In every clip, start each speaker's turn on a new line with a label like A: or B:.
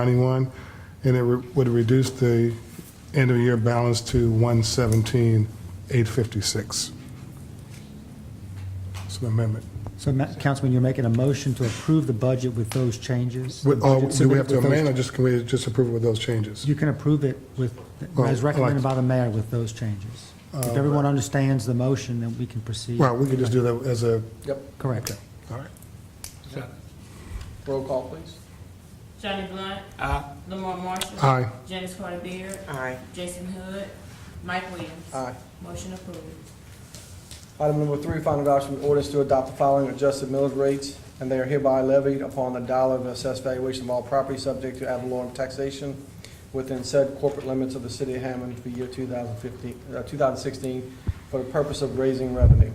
A: 91, and it re- would reduce the end-of-year balance to 117,856. It's an amendment.
B: So, Ma- Councilman, you're making a motion to approve the budget with those changes?
A: With- oh,
B: Budget
A: Do we have to
B: submitted with those-
A: amend, or just, can we just approve it with those changes?
B: You can approve it with,
A: Well,
B: as recommended
A: I'd like Uh,
B: by the mayor with those changes. If everyone understands the motion, then we can proceed.
A: Well, we could just do that as a,
C: Yep.
B: Correct.
A: all right.
C: Roll call, please.
D: Johnny Blunt. Lamar Marshall.
A: Aye.
D: Janice Carter Beard.
C: Aye.
D: Jason Hood. Mike Williams.
C: Aye.
D: Motion approved.
C: Item number three, final adoption of ordinance to adopt the following adjusted millage rates, and they are hereby levied upon the dollar of assessed valuation of all property subject to ad valorem taxation within said corporate limits of the city of Hammond for year 2015, uh, 2016, for the purpose of raising revenue.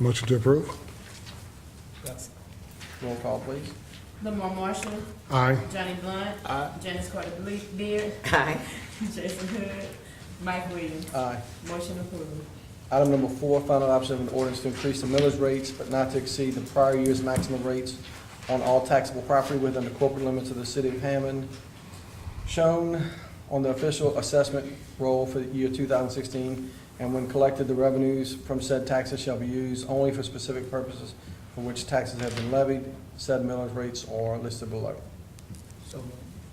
A: Motion to approve?
C: Roll call, please.
D: Lamar Marshall.
A: Aye.
D: Johnny Blunt.
C: Aye.
D: Janice Carter Ble- Beard.
E: Aye.
D: Jason Hood. Mike Williams.
C: Aye.
D: Motion approved.
C: Item number four, final adoption of an ordinance to increase the millage rates, but not to exceed the prior year's maximum rates on all taxable property within the corporate limits of the city of Hammond, shown on the official assessment roll for the year 2016, and when collected, the revenues from said taxes shall be used only for specific purposes for which taxes have been levied. Said millage rates are listed below.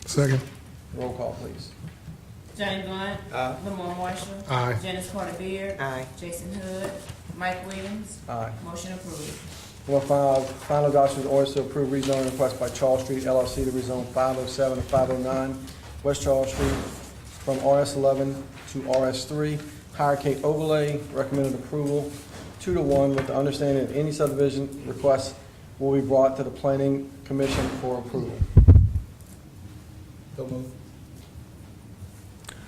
A: Second?
C: Roll call, please.
D: Johnny Blunt.
C: Aye.
D: Lamar Marshall.
A: Aye.
D: Janice Carter Beard.
E: Aye.
D: Jason Hood. Mike Williams.
C: Aye.
D: Motion approved.
C: Number five, final adoption of orders to approve rezoning request by Charles Street LLC to rezone 507 to 509 West Charles Street from RS11 to RS3, higher K overlay, recommended approval, two to one, with the understanding that any subdivision request will be brought to the planning commission for approval.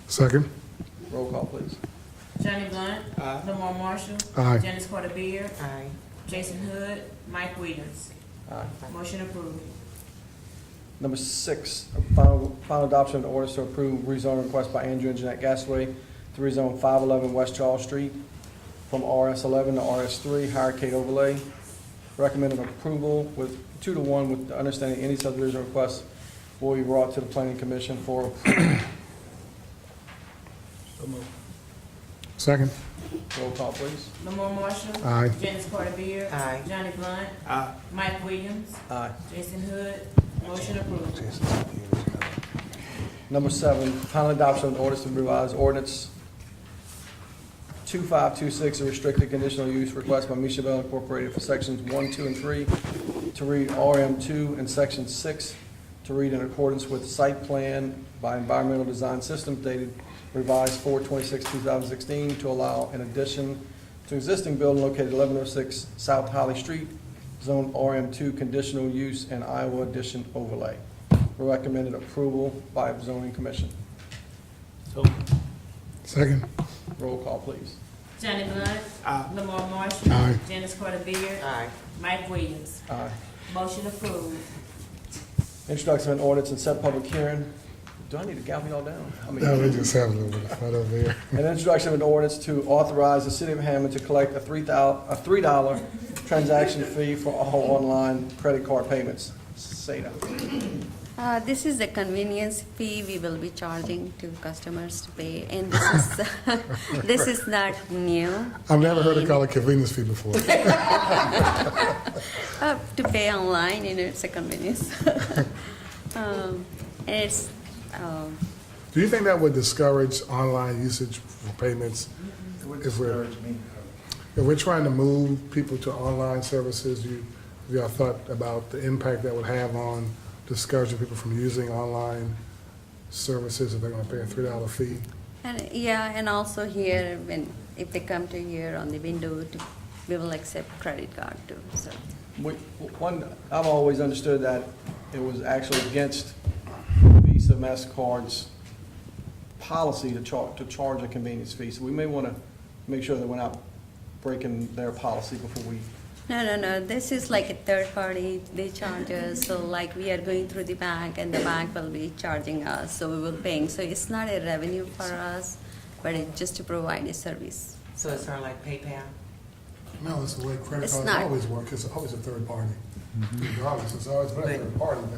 A: Second?
C: Roll call, please.
D: Johnny Blunt. Lamar Marshall.
A: Aye.
D: Janice Carter Beard.
E: Aye.
D: Jason Hood. Mike Williams.
C: Aye.
D: Motion approved.
C: Number six, final, final adoption of the orders to approve rezone request by Andrew and Jeanette Gasway to rezone five eleven West Charles Street from RS eleven to RS three, higher Kate overlay. Recommended approval with two to one with the understanding any subdivision request will be brought to the planning commission for,
A: Second?
C: roll call please.
D: Lamar Marshall.
A: Aye.
D: Janice Carter Beard.
E: Aye.
D: Johnny Blunt.
C: Aye.
D: Mike Williams.
C: Aye.
D: Jason Hood. Motion approved.
C: Number seven, final adoption of an ordinance to revise ordinance 2526, a restricted conditional use request by Misha Bell Incorporated for sections 1, 2, and 3 to read RM2 and section 6 to read in accordance with site plan by Environmental Design Systems dated revised 4/26/2016 to allow an addition to existing building located 1106 South Holly Street, zone RM2 conditional use and Iowa addition overlay. Recommended approval by zoning commission.
A: Second?
C: Roll call, please.
D: Johnny Blunt.
C: Aye.
D: Lamar Marshall.
A: Aye.
D: Janice Carter Beard.
E: Aye.
D: Mike Williams.
C: Aye.
D: Motion approved.
C: Introduction of an ordinance and set public hearing. Do I need to gavel y'all down? I mean-
A: No, we just have a little bit of fun over here.
C: An introduction of an ordinance to authorize the city of Hammond to collect a three thou, a three dollar transaction fee for all online credit card payments. Seda.
F: Uh, This is the convenience fee we will be charging to customers to pay, and this is, this is not new.
A: I've never heard it called a convenience fee before.
F: Uh, To pay online, you know, it's a convenience. Um, And it's, um,
A: Do you think that would discourage online usage for payments? If we're, if we're trying to move people to online services, you, have y'all thought about the impact that would have on discouraging people from using online services if they're gonna pay a three dollar fee?
F: and, yeah, and also here, when, if they come to here on the window, to- we will accept credit card too, so.
C: We- One, I've always understood that it was actually against Visa, MasterCard's policy to char, to charge a convenience fee. So we may want to make sure that we're not breaking their policy before we
F: No, no, no, this is like a third party, they charge us, so like we are going through the bank and the bank will be charging us, so we will paying. So it's not a revenue for us, but it's just to provide a service.
E: So it's sort of like PayPal?
A: No, it's the way credit
F: It's
A: cards
F: not.
A: always work, it's always a third party. regardless, it's always been a third party, but